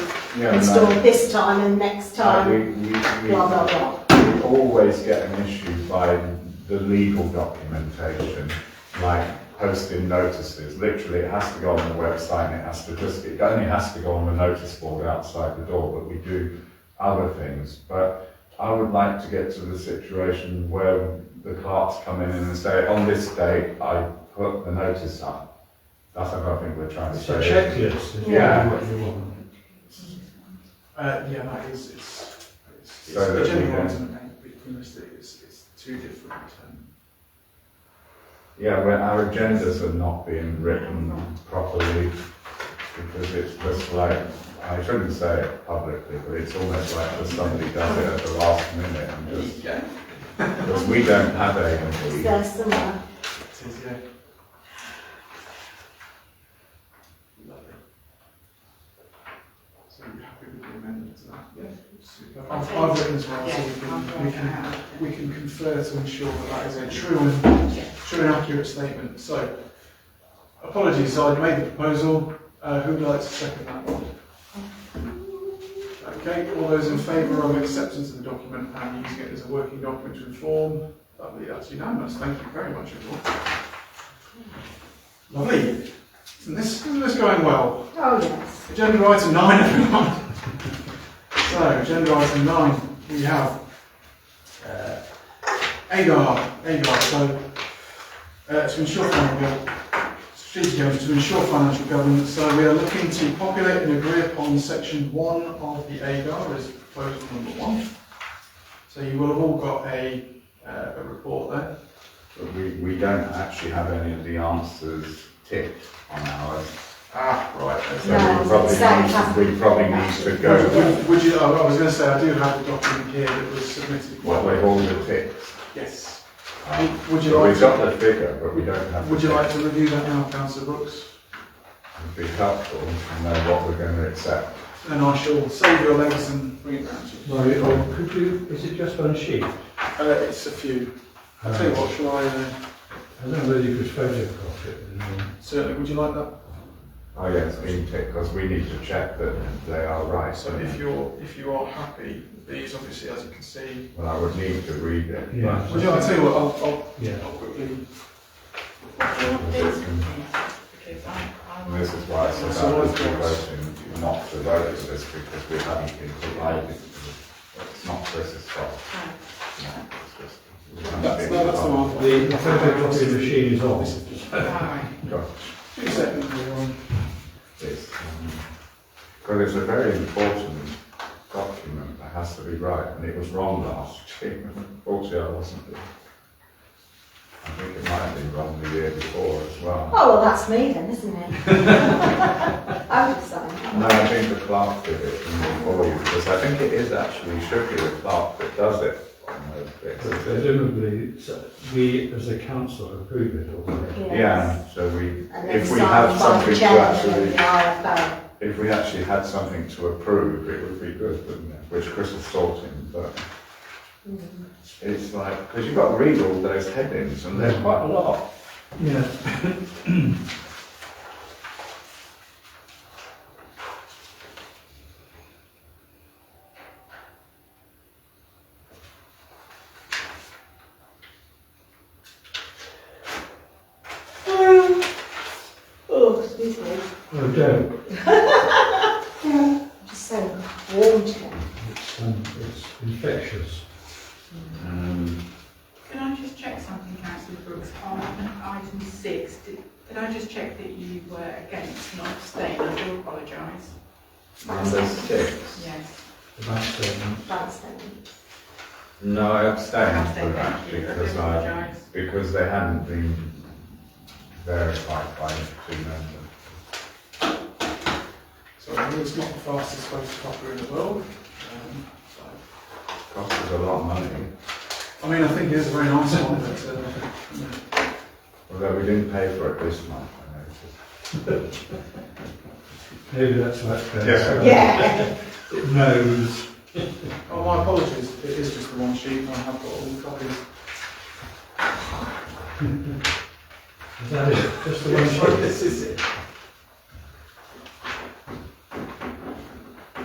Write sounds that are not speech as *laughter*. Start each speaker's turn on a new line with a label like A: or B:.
A: Yeah,
B: install
A: no.
B: this time and next
A: No,
B: time,
A: we- we- we-
B: blah, blah, blah.
A: we always get an issue by the legal documentation, like posting notices. Literally, it has to go on the website and it has to just, it only has to go on the notice board outside the door, but we do other things. But I would like to get to the situation where the clerks come in and say, on this date, I put the notice up. That's what I think we're trying to
C: It's
A: say.
C: a checklist, is
A: Yeah.
C: what you want.
D: Uh, yeah, no, it's, it's, it's, it's
A: So
D: the
A: that we
D: general
A: can-
D: ones and the painless is, is two different. Um,
A: Yeah, well, our agendas are not being written properly because it's just like, I shouldn't say it publicly, but it's almost like just somebody does it at the last minute and just,
D: yeah,
A: because we don't have A
B: It's
A: and B.
B: there somewhere.
D: it is, yeah. Lovely. So you're happy with the amendment to that? Yeah. Super. I've, I've written as well, so we can, we can, we can confer to ensure that that is a true and, true and accurate statement. So, apologies, so I made the proposal, uh, who would like to second that one? Okay, all those in favour of acceptance of the document and using it as a working document to inform, lovely, that's unanimous, thank you very much everyone. Lovely, isn't this, isn't this going well?
B: Oh, yes.
D: Agenda item nine, everyone. So, agenda item nine, we have uh, Agar, Agar, so uh, to ensure financial, strategic governance, to ensure financial governance, so we are looking to populate and agree upon section one of the Agar, as proposal number one. So you will have all got a, uh, a report there.
A: But we, we don't actually have any of the answers ticked on ours.
D: Ah, right, okay.
A: So we
B: No, it's
A: probably need, we probably need to go
D: Would- Would you, oh, I I was going to say, I do have a document here that was submitted.
A: what we hold the ticks.
D: Yes.
A: Um,
D: Would you
A: so
D: like
A: We've
D: to-
A: got the figure, but we don't have. the
D: Would you
A: tick.
D: like to review that now, councillor Brooks?
A: It'd be helpful to know what we're going to accept.
D: And I shall save your legs and bring it round to you.
C: Right, or oh, could you, is it just one sheet?
D: Uh, it's a few. I'll tell you what, shall I, uh,
C: I don't know whether you could photocopy it. and, um,
D: certainly, would you like that?
A: Oh, yes, we tick, because we need to check that they are right.
D: So if you're, if you are happy, these obviously, as you can see.
A: Well, I would need to read it. but-
C: Yeah.
D: Would you, I'll tell you what, I'll, I'll-
C: Yeah.
D: I'll quickly.
A: And This is why I said I would be voting not to vote for this, because we haven't been provided. It's not Chris's fault. No, it's just- we haven't
D: That's,
A: been
D: no, that's the
A: provided.
D: one.
C: The photocopy machine is on.
A: Got
D: Two seconds, everyone.
A: this. Because um, it's a very important document that has to be right, and it was wrong last year. Unfortunately, I wasn't there. I think it might have been wrong the year before as well.
B: Oh, well, that's me then, isn't
A: *laughs*
B: it? I would say.
A: No, I think the clerk did it for you, because I think it is actually, should be the clerk that does it on those bits.
C: Presumably, so we as a council approve it or.
A: Yeah, so we,
B: And then
A: if we
B: signed
A: have
B: by the
A: something to
B: chairman of the
A: actually,
B: IFO.
A: if we actually had something to approve, it would be good, wouldn't it? Which Chris is sorting, but
B: Mm-hmm.
A: it's like, because you've got to read all those headings, and there's quite a lot.
C: Yeah.
B: Oh, excuse me.
C: Oh, don't.
B: Just so warm today.
C: It's, um, it's infectious.
B: Mm.
E: Can I just check something, councillor Brooks, on item six? Did did I just check that you were against, not abstain? I do apologise.
A: Number six.
E: Yes.
C: About, um,
B: That's it.
A: *laughs* No, I abstained
E: Abstain,
A: from that,
E: thank you. I do
A: because I,
E: apologise.
A: because they hadn't been verified by the two members.
D: So I know it's not the fastest photocopy in the world. Um, so-
A: Cost us a lot of money,
D: I mean, I think it is a very nice one, but, uh,
A: although we didn't pay for it this month, I noticed.
C: maybe that's why it's. going
A: Yeah.
C: so-
B: Yeah.
C: It knows.
D: Oh, my apologies, it is just the one sheet, and I have got all the copies.
C: Is that it? Just the one sheet?
D: *laughs* This is it.